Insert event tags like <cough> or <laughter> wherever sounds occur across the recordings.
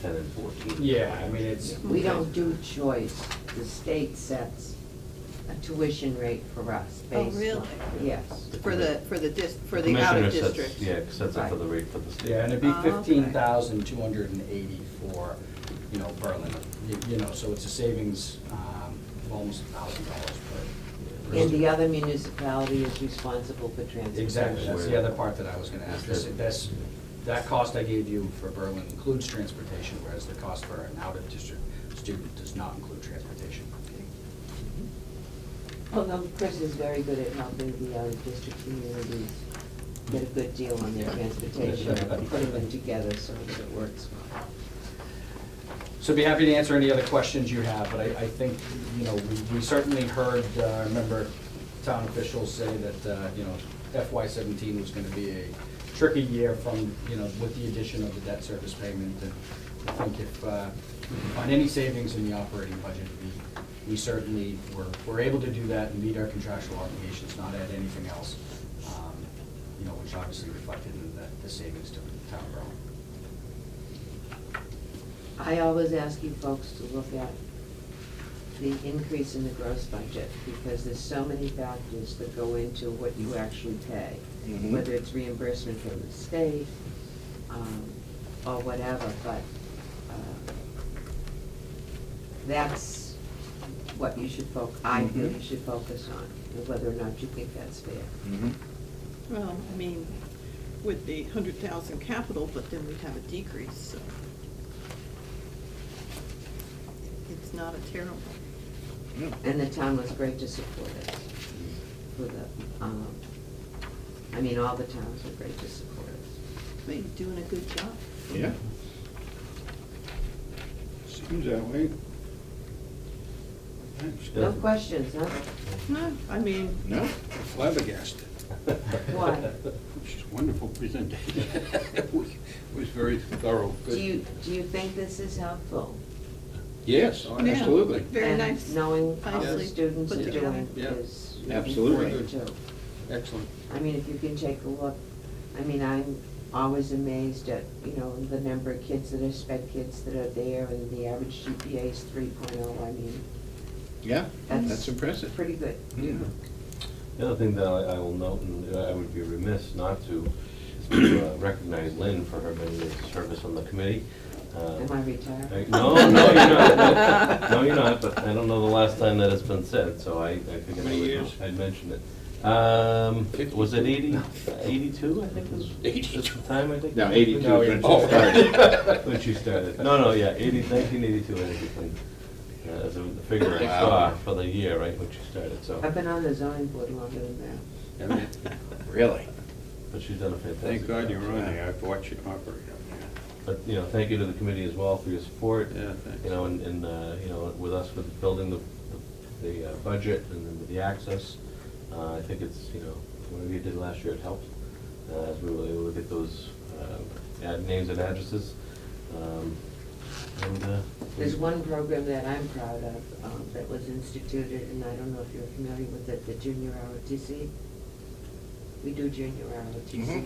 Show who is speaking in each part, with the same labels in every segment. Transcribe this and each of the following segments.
Speaker 1: ten and fourteen.
Speaker 2: Yeah, I mean, it's.
Speaker 3: We don't do choice. The state sets a tuition rate for us
Speaker 4: Oh,
Speaker 3: based
Speaker 4: really?
Speaker 3: on- Yes.
Speaker 4: For the, for the dis, for the
Speaker 1: Commissioner
Speaker 4: out of
Speaker 1: sets-
Speaker 4: district?
Speaker 1: Yeah, sets it for the rate for the state.
Speaker 2: Yeah, and it'd be
Speaker 4: Oh, okay.
Speaker 2: fifteen thousand two hundred and eighty for, you know, Berlin, You- you know, so it's a savings um, of almost a thousand dollars per.
Speaker 3: And the other municipality is responsible for transportation.
Speaker 2: Exactly, that's the other part that I was gonna ask, this, this, that cost I gave you for Berlin includes transportation, whereas the cost for an out-of-district student does not include transportation.
Speaker 3: Although Chris is very good at helping the other district communities get a good deal on their transportation, and putting them together so that it works well.
Speaker 2: So be happy to answer any other questions you have, but I, I think, you know, we, we certainly heard, uh, I remember town officials say that, uh, you know, FY seventeen was gonna be a tricky year from, you know, with the addition of the debt service payment, and I think if, uh, we can find any savings in the operating budget, we, we certainly were, were able to do that and meet our contractual obligations, not add anything else, um, you know, which obviously reflected in the, the savings to the town borough.
Speaker 3: I always ask you folks to look at the increase in the gross budget, because there's so many factors that go into what you actually pay.
Speaker 5: Mhm.
Speaker 3: Whether it's reimbursement from the state, um, or whatever, but, uh, that's what you should foc, I feel you
Speaker 5: Mhm.
Speaker 3: should focus on, and whether or not you think that's fair.
Speaker 2: <laughs>
Speaker 5: Mhm.
Speaker 4: Well, I mean, with the hundred thousand capital, but then we'd have a decrease, so. It's not a terrible.
Speaker 5: Yeah.
Speaker 3: And the town was great to support us with the, um, I mean, all the towns were great to support us.
Speaker 4: But you're doing a good job.
Speaker 5: Yeah. Seems that way. Thanks.
Speaker 1: Yeah.
Speaker 3: No questions, huh?
Speaker 4: No, I mean,
Speaker 5: No, flabbergasted.
Speaker 3: Why?
Speaker 5: She's a
Speaker 3: <laughs>
Speaker 5: wonderful presentation. It was- it was very thorough.
Speaker 3: Do
Speaker 5: Good.
Speaker 3: you, do you think this is helpful?
Speaker 5: Yes,
Speaker 2: Yeah.
Speaker 5: Oh, absolutely.
Speaker 4: very
Speaker 3: And
Speaker 4: nice.
Speaker 3: Knowing how the
Speaker 4: nicely
Speaker 3: students
Speaker 4: put
Speaker 3: are
Speaker 4: together.
Speaker 3: doing
Speaker 5: Yeah.
Speaker 3: is really
Speaker 5: Absolutely.
Speaker 3: important too.
Speaker 5: Excellent.
Speaker 3: I mean, if you can take a look, I mean, I'm always amazed at, you know, the number of kids that are sped kids that are there and the average GPA is three oh, I mean,
Speaker 5: Yeah,
Speaker 3: That's-
Speaker 5: that's impressive.
Speaker 3: pretty good.
Speaker 5: Yeah.
Speaker 1: The other thing that I I will note, and I would be remiss not to, is to uh, recognize Lynn for her many years of service on the committee. Uh,
Speaker 3: Am I retired?
Speaker 1: I- No, no, you're not. No, you're not, but I don't know the last time that it's been said, so I, I figured I
Speaker 5: Many
Speaker 1: would,
Speaker 5: years.
Speaker 1: I'd mention it. Um, was it eighty, eighty-two, I think was, is the time, I think? Oh,
Speaker 5: Now, eighty-two
Speaker 2: No,
Speaker 5: is when
Speaker 2: you-
Speaker 5: she
Speaker 1: <laughs>
Speaker 5: started.
Speaker 1: When she started. No, no, yeah, eighty, nineteen eighty-two, I think, is when, uh, is the the figure I
Speaker 5: Wow.
Speaker 1: saw for the year, right, when she started, so.
Speaker 3: I've been on the zoning board longer than that.
Speaker 5: Haven't it? Really?
Speaker 1: But she's done a fantastic job.
Speaker 5: Thank God you're on there. I've watched you operate on
Speaker 1: But, you know, thank you to the committee as well for your support.
Speaker 5: there. Yeah, thanks.
Speaker 1: You know, and, and, uh, you know, with us with building the, the uh, budget and then with the access, uh, I think it's, you know, whatever you did last year, it helped. Uh, as we were able to get those, uh, ad, names and addresses, um, and, uh.
Speaker 3: There's one program that I'm proud of, um, that was instituted, and I don't know if you're familiar with it, the junior ROTC. We do junior ROTC now.
Speaker 5: Mhm.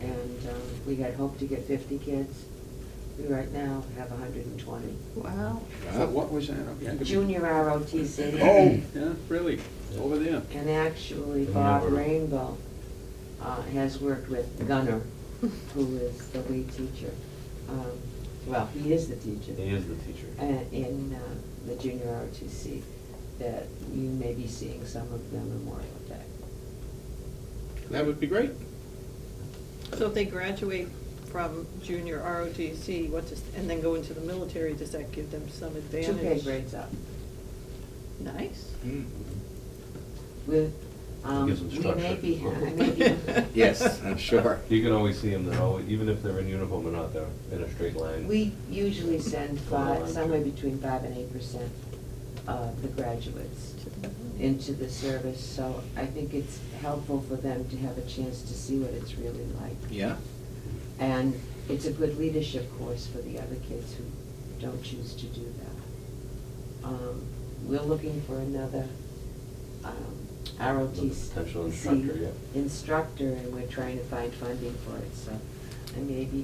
Speaker 3: And, um, we had hoped to get fifty kids. We right now have hundred and twenty.
Speaker 4: <laughs> wow.
Speaker 5: Uh, What was that? again?
Speaker 3: Junior ROTC.
Speaker 5: <clears throat> Oh, yeah, really? Over there?
Speaker 3: And actually
Speaker 1: The
Speaker 3: Bob
Speaker 1: number.
Speaker 3: Rainbow, uh, has worked with Gunner, who is the lead teacher. Um, Well, he is the teacher.
Speaker 1: He is the teacher.
Speaker 3: uh, in uh, the junior ROTC that you may be seeing some of them Memorial Day.
Speaker 5: That would be great.
Speaker 4: So if they graduate from junior ROTC, what does, and then go into the military, does that give them some
Speaker 3: Two
Speaker 4: advantage?
Speaker 3: pay grades up.
Speaker 4: Nice.
Speaker 5: Mm.
Speaker 3: With, um,
Speaker 1: Gives them
Speaker 3: we
Speaker 1: structure.
Speaker 3: may be, I may be,
Speaker 4: <laughs>
Speaker 5: Yes, I'm sure.
Speaker 1: You can always see them, they're always, even if they're in uniform or not, they're in a straight line.
Speaker 3: we usually send
Speaker 1: Hold
Speaker 3: five,
Speaker 1: on.
Speaker 3: somewhere between five and eight percent of the graduates into the service, so I think it's helpful for them to have a chance to see what it's really like.
Speaker 5: Yeah?
Speaker 3: And it's a good leadership course for the other kids who don't choose to do that. Um, We're looking for another um,
Speaker 1: Potential
Speaker 3: ROTC
Speaker 1: instructor, yeah.
Speaker 3: instructor, and we're trying to find funding for it, so I may be